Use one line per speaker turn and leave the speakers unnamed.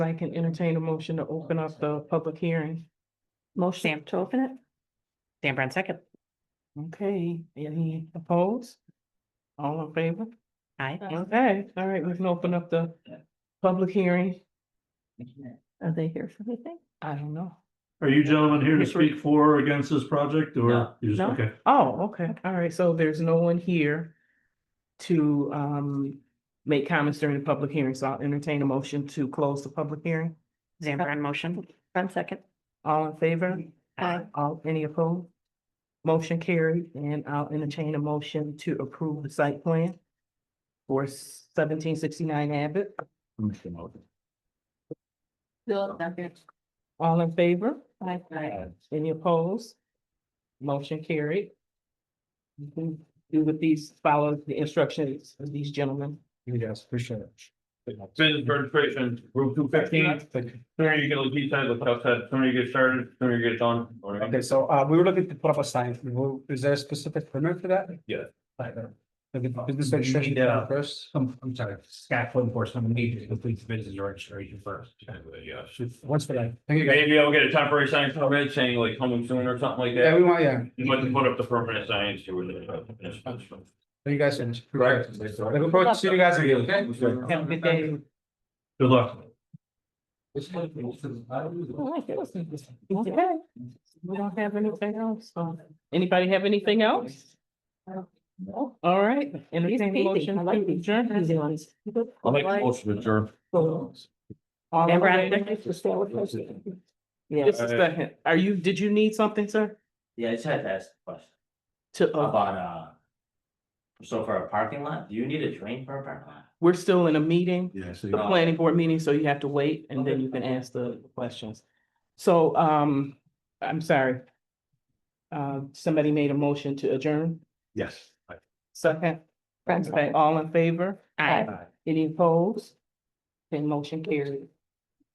I can entertain a motion to open up the public hearing.
Motion to open it.
Dan Brown second.
Okay, any opposed? All in favor?
Aye.
Uh,
Okay, all right, we can open up the public hearing.
Are they here for anything?
I don't know.
Are you gentlemen here to
Yes, we-
speak for or against this project or?
No.
you just
No.
Okay,
Oh, okay, all right, so there's no one here to um make comments during the public hearing, so I'll entertain a motion to close the public hearing.
Dan Brown motion.
One second.
All in favor?
Aye.
All, any opposed? Motion carried, and I'll entertain a motion to approve the site plan for seventeen sixty-nine Abbott.
Bill, second.
All in favor?
Aye.
Any opposed? Motion carried. You can Do with these, follow the instructions of these gentlemen.
You guys, appreciate it.
Business registration, Route two fifteen, sooner you get a lead time, look outside, sooner you get started, sooner you get done. all right?
Okay, so uh, we were looking to put up a sign. Will- Is there a specific permit for that?
Yeah.
Like, uh, like a business
You
registration
need, uh,
first? Um,
I'm, I'm sorry, Scott Flynn for some immediate complete business registration first.
Yeah.
What's for that? Thank you guys.
Maybe I'll get a temporary sign permit saying like coming soon or something like
Yeah,
that.
we want, yeah.
But to put up the permanent signs to it.
Thank you guys. so much.
Right.
Looking forward to seeing you guys again, okay?
Have a good day.
Good luck.
Okay. We don't have anything else, so, anybody have anything else? No. All right, entertain a motion to adjourn.
I'll make a motion to adjourn.
All in
Dan Brown
favor?
second.
Just a second, are you, did you need something, sir?
Yeah, I just had to ask a question
To, uh,
about, uh. So for a parking lot, do you need a drain for a parking lot?
we're still in a meeting,
Yes.
the planning board meeting, so you have to wait and then you can ask the questions. So, um, I'm sorry. Uh, somebody made a motion to adjourn,
Yes.
second,
Brand
okay,
second.
all in favor?
Aye.
Any opposed? Then motion carried.